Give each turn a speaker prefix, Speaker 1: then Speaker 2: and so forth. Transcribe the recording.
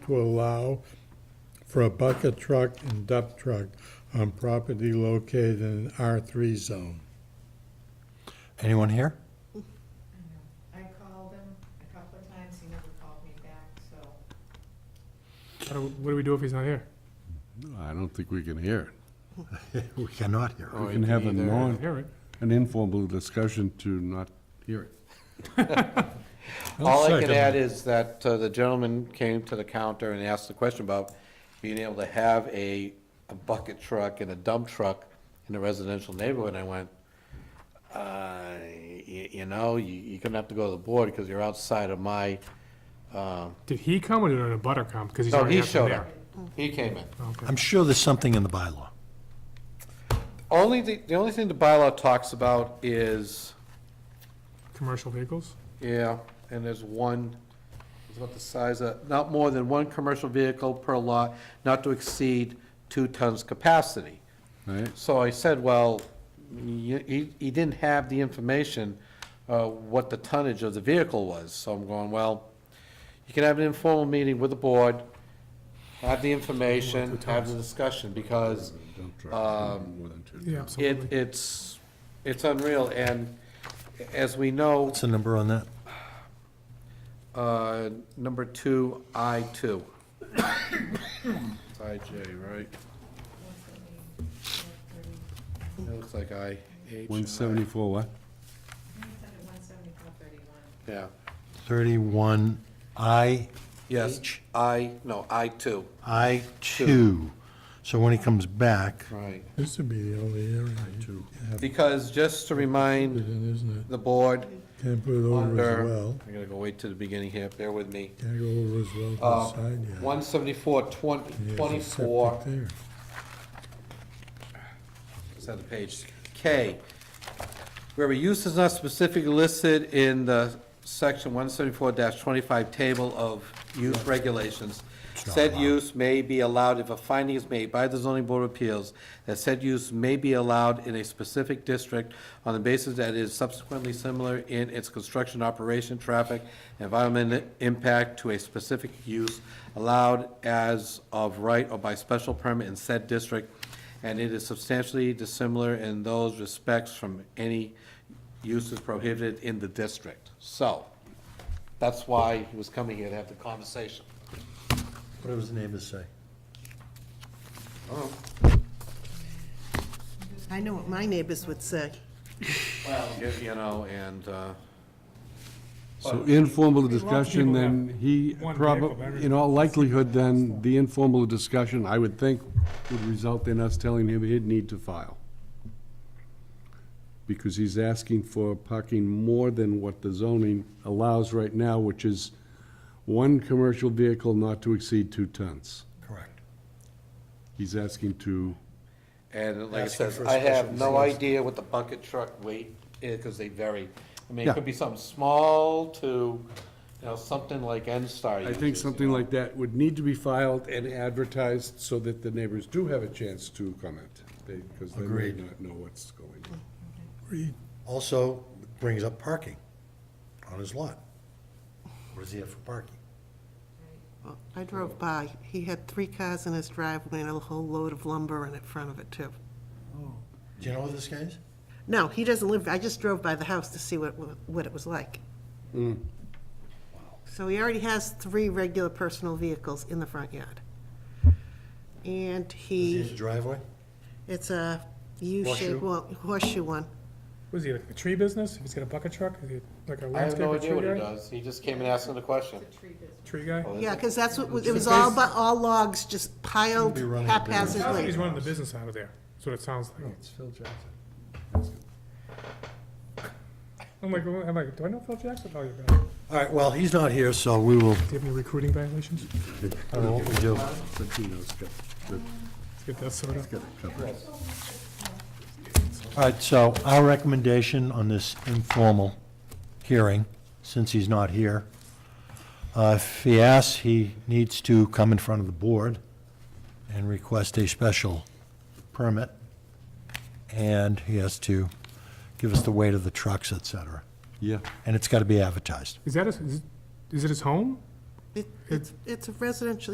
Speaker 1: to allow for a bucket truck and dump truck on property located in an R3 zone.
Speaker 2: Anyone here?
Speaker 3: I called him a couple of times, he never called me back, so.
Speaker 4: How do- What do we do if he's not here?
Speaker 5: I don't think we can hear
Speaker 2: We cannot hear.
Speaker 5: it. We can have a
Speaker 4: I
Speaker 5: non,
Speaker 4: hear it.
Speaker 5: an informal discussion to not hear it.
Speaker 6: All I can
Speaker 1: Second.
Speaker 6: add is that uh, the gentleman came to the counter and asked the question about being able to have a, a bucket truck and a dump truck in a residential neighborhood. And I went, uh, you, you know, you, you're gonna have to go to the board because you're outside of my, um,
Speaker 4: Did he come or did a butter come? Because he's
Speaker 6: no,
Speaker 4: already
Speaker 6: he
Speaker 4: had them
Speaker 6: showed
Speaker 4: there.
Speaker 6: up. He came in.
Speaker 4: Okay.
Speaker 2: I'm sure there's something in the bylaw.
Speaker 6: Only, the, the only thing the bylaw talks about is,
Speaker 4: Commercial vehicles?
Speaker 6: yeah, and there's one, it's about the size of, not more than one commercial vehicle per lot, not to exceed two tons capacity.
Speaker 5: Right?
Speaker 6: So I said, well, y- he, he didn't have the information, uh, what the tonnage of the vehicle was. So I'm going, well, you can have an informal meeting with the board, have the information, have the discussion, because
Speaker 5: Dump truck,
Speaker 6: Um,
Speaker 5: more than two.
Speaker 4: Yeah,
Speaker 6: it,
Speaker 4: absolutely.
Speaker 6: it's, it's unreal. And as we know,
Speaker 2: What's the number on that?
Speaker 6: uh, number two, I two. It's IJ, right? It looks like I H.
Speaker 5: One seventy-four what?
Speaker 3: One seventy-four thirty-one.
Speaker 6: Yeah.
Speaker 2: 31 I,
Speaker 6: Yes,
Speaker 2: H?
Speaker 6: I, no, I two.
Speaker 2: I 2. So when he comes back,
Speaker 6: Right.
Speaker 1: This would be the only area you have it
Speaker 6: Because just to remind
Speaker 1: in, isn't
Speaker 6: the board,
Speaker 1: it? Can't put it over
Speaker 6: Under-
Speaker 1: as well.
Speaker 6: I'm gonna go wait to the beginning here, bear with me.
Speaker 1: Can't go over as well
Speaker 6: Uh,
Speaker 1: to the side yard.
Speaker 6: one seventy-four,
Speaker 1: And
Speaker 6: twenty,
Speaker 1: there's a
Speaker 6: twenty-four,
Speaker 1: septic there.
Speaker 6: is that the page? K. Where a use is not specifically listed in the section one seventy-four twenty-five table of use regulations,
Speaker 2: not
Speaker 6: said
Speaker 2: allowed.
Speaker 6: use may be allowed if a finding is made by the zoning board of appeals that said use may be allowed in a specific district on the basis that it is subsequently similar in its construction, operation, traffic, environmental impact to a specific use allowed as of right or by special permit in said district, and it is substantially dissimilar in those respects from any uses prohibited in the district. So, that's why he was coming here to have the conversation.
Speaker 2: what does the neighbors say?
Speaker 7: I know what my neighbors would say.
Speaker 6: Well, you- you know, and, uh,
Speaker 5: So informal
Speaker 4: lots of
Speaker 5: discussion,
Speaker 4: people
Speaker 5: then
Speaker 4: have
Speaker 5: he
Speaker 4: one vehicle, but
Speaker 5: probably,
Speaker 4: everybody-
Speaker 5: in all likelihood, then, the informal discussion, I would think, would result in us telling him he'd need to file. Because he's asking for parking more than what the zoning allows right now, which is one commercial vehicle not to exceed two tons.
Speaker 2: Correct.
Speaker 5: He's asking to,
Speaker 6: and like I
Speaker 2: Asking
Speaker 6: said,
Speaker 2: for a
Speaker 6: I have
Speaker 2: special
Speaker 6: no
Speaker 2: license.
Speaker 6: idea what the bucket truck weight is, because they vary. I mean,
Speaker 5: Yeah.
Speaker 6: it could be something small to, you know, something like N-Star
Speaker 5: I
Speaker 6: uses.
Speaker 5: think something like that would need to be filed and advertised so that the neighbors do have a chance to comment. Because they may
Speaker 2: Agreed.
Speaker 5: not know what's going on.
Speaker 2: Also brings up parking on his lot. What does he have for parking?
Speaker 7: Well, I drove by, he had three cars in his driveway and a whole load of lumber in front of it, too.
Speaker 2: Do you know what this guy is?
Speaker 7: No, he doesn't live, I just drove by the house to see what, what it was like.
Speaker 2: Mm.
Speaker 7: So he already has three regular personal vehicles in the front yard. And
Speaker 2: Does he have a
Speaker 7: he,
Speaker 2: driveway?
Speaker 7: it's a U-shaped,
Speaker 2: Horseshoe?
Speaker 7: well, horseshoe one.
Speaker 4: Was he like a tree business? If he's got a bucket truck, is he like a
Speaker 6: I have no
Speaker 4: landscaper
Speaker 6: idea what
Speaker 4: tree guy?
Speaker 6: he does, he just came and asked him the question.
Speaker 4: Tree guy?
Speaker 6: Oh,
Speaker 7: Yeah, because that's what, was- it was
Speaker 4: Because-
Speaker 7: all, bu- all logs just piled
Speaker 2: He'll be running a
Speaker 4: Sounds
Speaker 2: business.
Speaker 4: like he's
Speaker 7: haphazardly.
Speaker 4: running the business out of there. That's what it sounds
Speaker 6: Oh,
Speaker 4: like.
Speaker 2: It's Phil Jackson.
Speaker 4: I'm like, well, I'm like, do I know Phil Jackson? Oh, you don't. Do
Speaker 2: All right, well, he's not here, so we will,
Speaker 4: you have any recruiting violations?
Speaker 2: I don't know what we do.
Speaker 5: But he knows, got the-
Speaker 4: Let's get that sorted out.
Speaker 5: got it covered.
Speaker 2: All right, so our recommendation on this informal hearing, since he's not here, uh, if he asks, he needs to come in front of the board and request a special permit, and he has to give us the weight of the trucks, et cetera.
Speaker 5: Yeah,
Speaker 2: And it's got to be advertised.
Speaker 4: Is that his, is- is it his home?
Speaker 7: It- It's, it's a residential